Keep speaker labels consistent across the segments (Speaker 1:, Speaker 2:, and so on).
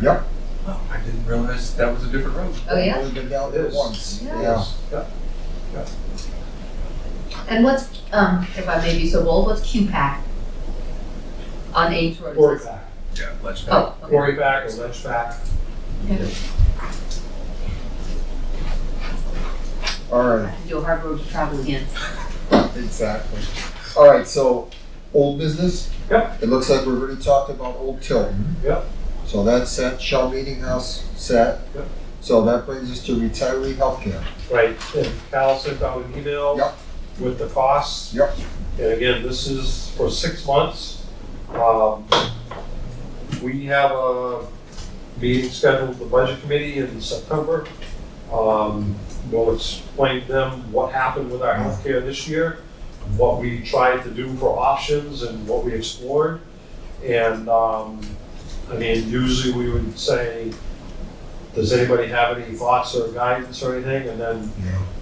Speaker 1: Yep.
Speaker 2: Oh, I didn't realize that was a different road.
Speaker 3: Oh, yeah?
Speaker 1: Only been down there
Speaker 2: Yes.
Speaker 1: once.
Speaker 3: Yeah.
Speaker 2: Yeah.
Speaker 3: And what's, um, if I may be so bold, what's QPAC? On H Road?
Speaker 4: Quarry back,
Speaker 2: Yeah, let's
Speaker 3: Oh, okay.
Speaker 4: quarry back or ledge back.
Speaker 1: All
Speaker 3: I
Speaker 1: right,
Speaker 3: have to do a hard road to travel again.
Speaker 1: exactly. All right, so old business?
Speaker 4: Yep.
Speaker 1: It looks like we've already talked about Old Tilton.
Speaker 4: Yep.
Speaker 1: So that's set, Shell Meeting House set.
Speaker 4: Yep.
Speaker 1: So that brings us to retiree healthcare.
Speaker 4: Right, and Cal sent out an email
Speaker 1: Yep.
Speaker 4: with the costs.
Speaker 1: Yep.
Speaker 4: And again, this is for six months. Um, We have a meeting scheduled with the budget committee in September. Um, We'll explain to them what happened with our healthcare this year, what we tried to do for options and what we explored. And, um, I mean, usually we would say, does anybody have any thoughts or guidance or anything? And then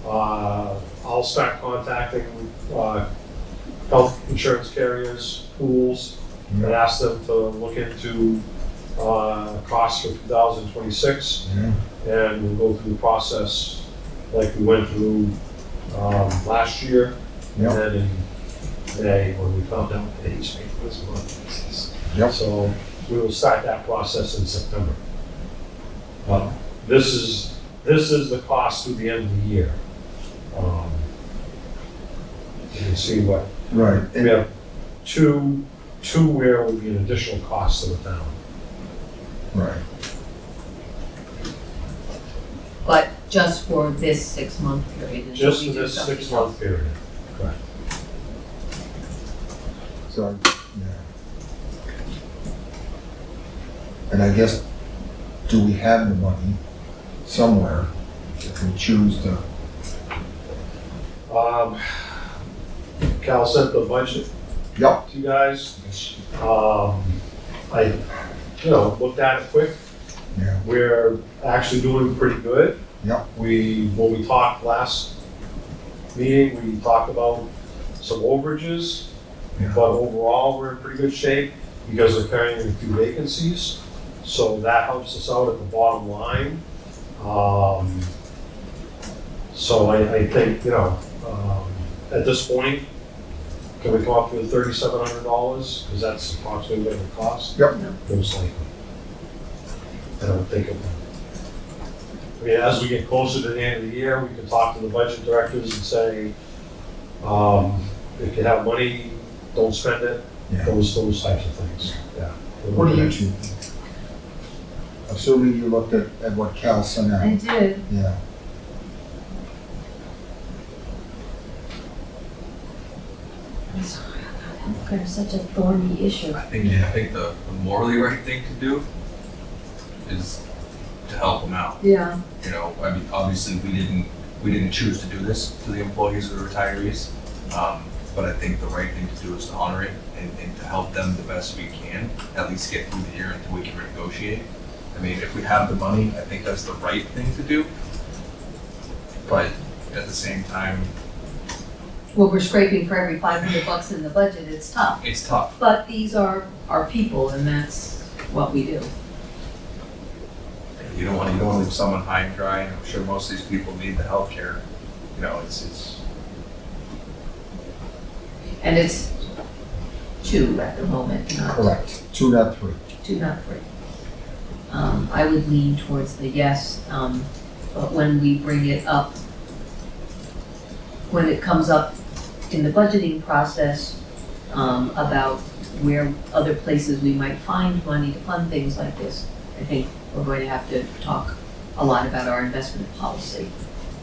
Speaker 1: Yeah.
Speaker 4: uh, I'll start contacting uh, health insurance carriers, pools, and
Speaker 1: Yeah.
Speaker 4: ask them to look into uh, costs for 2026
Speaker 1: Yeah.
Speaker 4: and we'll go through the process like we went through um, last year.
Speaker 1: Yep.
Speaker 4: And then in May, when we found out that each made this month.
Speaker 1: Yep.
Speaker 4: So we will start that process in September. Uh, This is, this is the cost through the end of the year. Um, You can see what,
Speaker 1: Right,
Speaker 4: we
Speaker 1: and,
Speaker 4: have two, two where would be an additional cost to the town.
Speaker 1: right,
Speaker 3: But just for this six-month period. until
Speaker 4: Just
Speaker 3: we
Speaker 4: for
Speaker 3: do
Speaker 4: this
Speaker 3: something else.
Speaker 4: six-month period.
Speaker 1: so, yeah. And I guess, do we have the money somewhere if we choose to?
Speaker 4: Um, Cal sent the budget
Speaker 1: Yep.
Speaker 4: to you guys. Um, I, you know, looked at it quick.
Speaker 1: Yeah.
Speaker 4: We're actually doing pretty good.
Speaker 1: Yep.
Speaker 4: We, when we talked last meeting, we talked about some overages,
Speaker 1: Yeah.
Speaker 4: but overall, we're in pretty good shape because we're carrying a few vacancies. So that helps us out at the bottom line. Um, so I, I think, you know, um, at this point, can we come up with thirty-seven hundred dollars? Because that's approximately what it would cost.
Speaker 1: Yep.
Speaker 4: Most likely. I don't think it would. I mean, as we get closer to the end of the year, we can talk to the budget directors and say, um, if you have money, don't spend it,
Speaker 1: Yeah.
Speaker 4: those, those types of things, yeah.
Speaker 1: What do you two? Assuming you looked at, at what Cal sent
Speaker 3: I
Speaker 1: out,
Speaker 3: did.
Speaker 1: yeah.
Speaker 5: I'm sorry, healthcare is such a thorny issue.
Speaker 2: I think, I think the the morally right thing to do is to help them out.
Speaker 5: Yeah.
Speaker 2: You know, I mean, obviously, we didn't, we didn't choose to do this to the employees or the retirees. Um, but I think the right thing to do is to honor it and, and to help them the best we can, at least get through the year until we can renegotiate. I mean, if we have the money, I think that's the right thing to do. But at the same time,
Speaker 3: Well, we're scraping for every five hundred bucks in the budget, it's tough.
Speaker 2: it's tough.
Speaker 3: But these are our people and that's what we do.
Speaker 2: You don't want, you don't want to leave someone high and dry, and I'm sure most of these people need the healthcare. You know, it's, it's,
Speaker 3: And it's two at the moment, not
Speaker 1: Correct, two not three.
Speaker 3: two, not three. Um, I would lean towards the yes, um, but when we bring it up, when it comes up in the budgeting process, um, about where other places we might find money to fund things like this, I think we're going to have to talk a lot about our investment policy,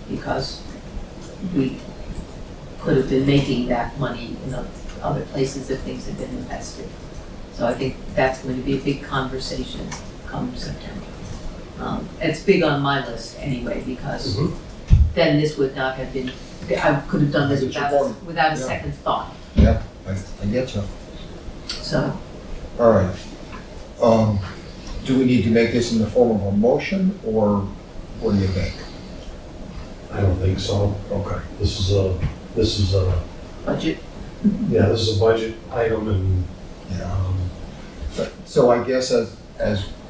Speaker 3: because we could have been making that money in oth- other places if things had been invested. So I think that's going to be a big conversation come September. Um, It's big on my list anyway, because
Speaker 4: Mhm.
Speaker 3: then this would not have been, I could have done this
Speaker 1: I get your
Speaker 3: without, a-
Speaker 1: point.
Speaker 3: without a
Speaker 1: Yeah.
Speaker 3: second thought,
Speaker 1: I, I get you.
Speaker 3: so.
Speaker 1: All right. Um, do we need to make this in the form of a motion or what do you think?
Speaker 4: I don't think so.
Speaker 1: Okay.
Speaker 4: This is a, this is a,
Speaker 3: Budget,
Speaker 4: yeah, this is a budget item and,
Speaker 1: Yeah.
Speaker 4: um,
Speaker 1: So I guess as, um, as